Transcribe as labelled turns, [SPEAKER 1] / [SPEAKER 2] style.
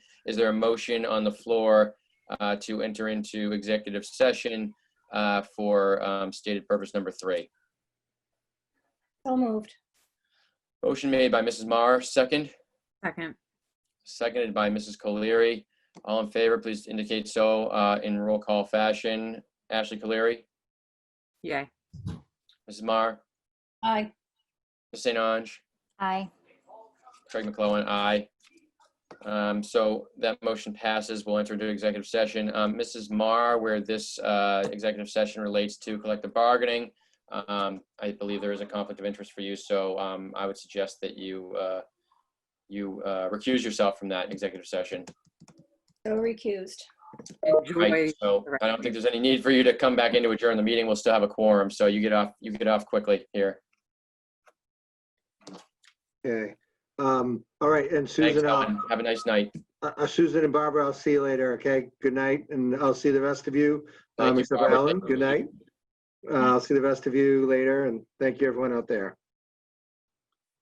[SPEAKER 1] Is there a motion on the floor uh, to enter into executive session uh, for um, stated purpose number three?
[SPEAKER 2] So moved.
[SPEAKER 1] Motion made by Mrs. Maher, second,
[SPEAKER 3] Second.
[SPEAKER 1] seconded by Mrs. Colery. All in favor, please indicate so uh, in roll call fashion. Ashley Colery,
[SPEAKER 3] Yay.
[SPEAKER 1] Mrs. Maher,
[SPEAKER 2] Aye.
[SPEAKER 1] Ms. St. Ange,
[SPEAKER 2] Aye.
[SPEAKER 1] Craig McClellan, aye. Um, So that motion passes. We'll enter into executive session. Um, Mrs. Marr, where this uh, executive session relates to collective bargaining, um, I believe there is a conflict of interest for you, so um, I would suggest that you, uh, you uh, recuse yourself from that executive session.
[SPEAKER 2] So recused.
[SPEAKER 3] Enjoy.
[SPEAKER 1] Right, so I don't think there's any need for you to come back in to adjourn the meeting. We'll still have a quorum, so you get off, you get off quickly here.
[SPEAKER 4] Okay, um, all right, and
[SPEAKER 1] Thanks,
[SPEAKER 4] Susan, I'll-
[SPEAKER 1] Ellen. Have a nice night.
[SPEAKER 4] uh, uh, Susan and Barbara, I'll see you later, okay? Good night, and I'll see the rest of you.
[SPEAKER 1] Thank
[SPEAKER 4] um,
[SPEAKER 1] you,
[SPEAKER 4] Except for
[SPEAKER 1] Barbara.
[SPEAKER 4] Ellen, good night. Uh, I'll see the rest of you later, and thank you, everyone out there.